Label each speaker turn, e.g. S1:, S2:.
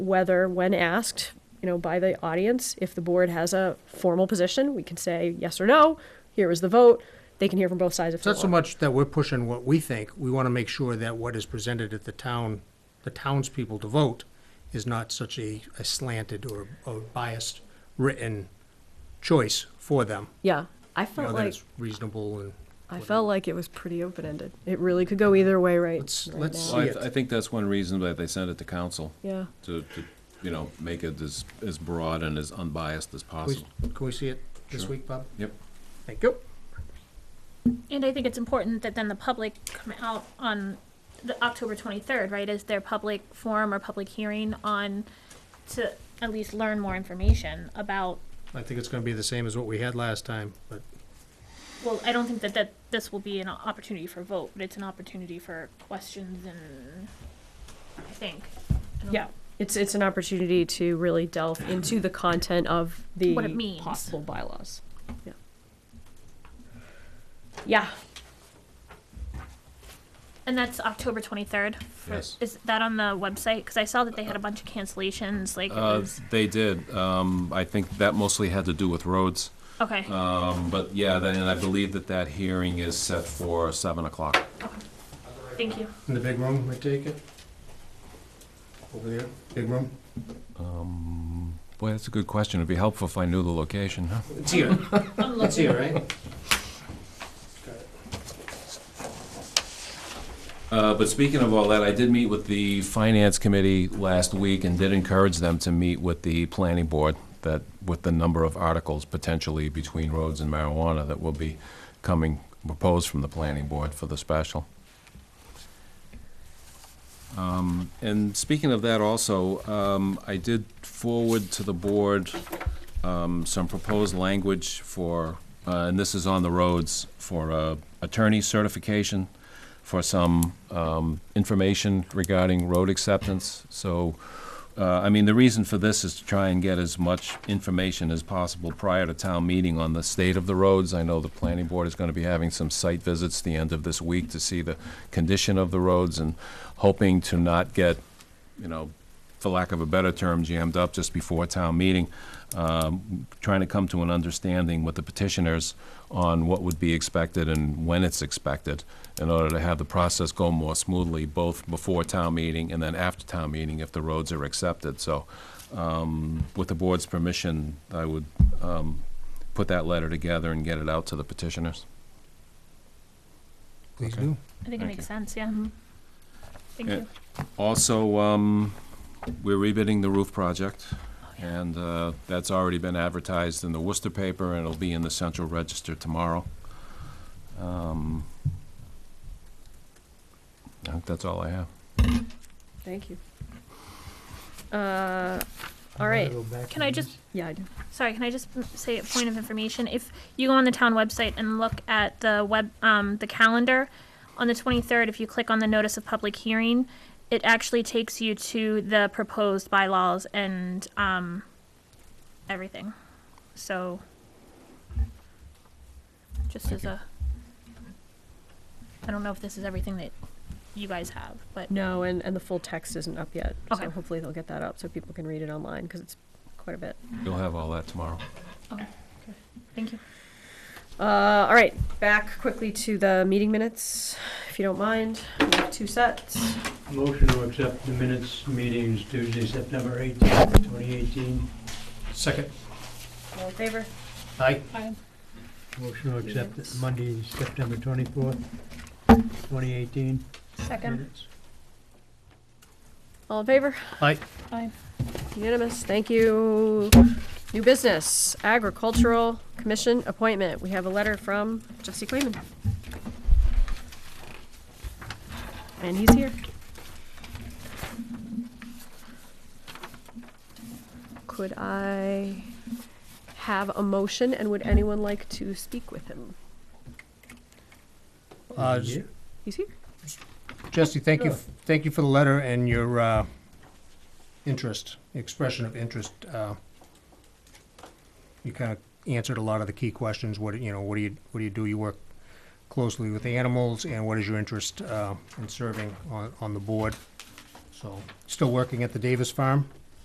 S1: whether, when asked, you know, by the audience, if the board has a formal position, we can say yes or no, here is the vote, they can hear from both sides if
S2: It's
S1: they
S2: not so
S1: want.
S2: much that we're pushing what we think, we want to make sure that what is presented at the town, the townspeople to vote is not such a a slanted or or biased written choice for them.
S1: Yeah, I
S2: You know,
S1: felt
S2: that
S1: like,
S2: it's reasonable and,
S1: I felt like it was pretty open-ended. It really could go either way right,
S2: Let's-
S1: right
S2: let's-
S1: now.
S3: Well, I,
S2: See
S3: th-
S2: it.
S3: I think that's one reason that they sent it to council,
S1: Yeah,
S3: to, to, you know, make it as, as broad and as unbiased as
S2: can we-
S3: possible.
S2: can we see it this
S3: Sure.
S2: week, Bob?
S3: Yep.
S2: Thank you.
S4: And I think it's important that then the public come out on the October twenty-third, right, is their public forum or public hearing on to at least learn more information about,
S2: I think it's going to be the same as what we had last time, but
S4: well, I don't think that that this will be an opportunity for vote, but it's an opportunity for questions and, I think. I don't
S1: yeah. It's, it's an opportunity to really delve into the content of the
S4: What it means.
S1: possible bylaws. Yeah. Yeah,
S4: And that's October 23rd. for-
S3: Yes.
S4: Is that on the website? Because I saw that they had a bunch of cancellations. Like, it
S3: Uh,
S4: was,
S3: they did, um, I think that mostly had to do with roads,
S4: okay.
S3: um, but yeah, then, and I believe that that hearing is set for seven o'clock.
S4: Thank you.
S2: in the big room, I take it? Over there, big room?
S3: Boy, that's a good question, it'd be helpful if I knew the location, huh?
S2: It's here.
S4: I'm
S2: It's
S4: looking.
S2: here, right?
S3: Uh, but speaking of all that, I did meet with the finance committee last week and did encourage them to meet with the planning board that, with the number of articles potentially between roads and marijuana that will be coming, proposed from the planning board for the special. Um, and speaking of that also, um, I did forward to the board, um, some proposed language for, uh, and this is on the roads, for, uh, attorney certification for some um, information regarding road acceptance. So, uh, I mean, the reason for this is to try and get as much information as possible prior to town meeting on the state of the roads. I know the planning board is going to be having some site visits the end of this week to see the condition of the roads and hoping to not get, you know, for lack of a better term, jammed up just before town meeting, um, trying to come to an understanding with the petitioners on what would be expected and when it's expected in order to have the process go more smoothly, both before town meeting and then after town meeting if the roads are accepted. So um, with the board's permission, I would um, put that letter together and get it out to the petitioners.
S2: Please
S3: Okay.
S2: do.
S4: I
S3: Thank
S4: think it makes
S3: you.
S4: sense. Yeah. Thank
S3: Yeah.
S4: you.
S3: Also, um, we're rebidding the roof project, and, uh, that's already been advertised in the Worcester paper, and it'll be in the Central Register tomorrow. Um, I think that's all I have.
S1: thank you. Uh, all right,
S4: Can I just
S3: Mm-hmm.
S1: yeah, I do.
S4: Sorry, can I just m- say a point of information? If you go on the town website and look at the web, um, the calendar, on the twenty-third, if you click on the notice of public hearing, it actually takes you to the proposed bylaws and, um, everything. So, just as a, I don't know if this is everything that you guys have, but
S1: No, and, and the full text isn't up yet. So
S4: Okay.
S1: hopefully they'll get that up so people can read it online because it's quite a bit.
S3: You'll have all that tomorrow.
S4: thank you.
S1: Uh, all right, back quickly to the meeting minutes, if you don't mind. We have Two sets.
S5: Motion to accept the minutes meetings Tuesday, September 18th, 2018.
S2: Second.
S1: All in favor?
S2: Aye.
S5: Motion to accept the Monday, September 24th, 2018.
S4: Second.
S5: minutes.
S1: All in favor?
S2: Aye.
S4: Aye.
S1: Unanimous. Thank you. New business, agricultural commission appointment. We have a letter from Jesse Clayman. And he's here. Could I have a motion and would anyone like to speak with him?
S2: Uh, s-
S5: Yeah.
S1: He's here.
S2: Jesse, thank you,
S5: Sure.
S2: thank you for the letter and your uh, interest, expression of interest. uh, You kind of answered a lot of the key questions, what, you know, what do you, what do you do? You work closely with the animals, and what is your interest uh, in serving on, on the board? So, still working at the Davis Farm?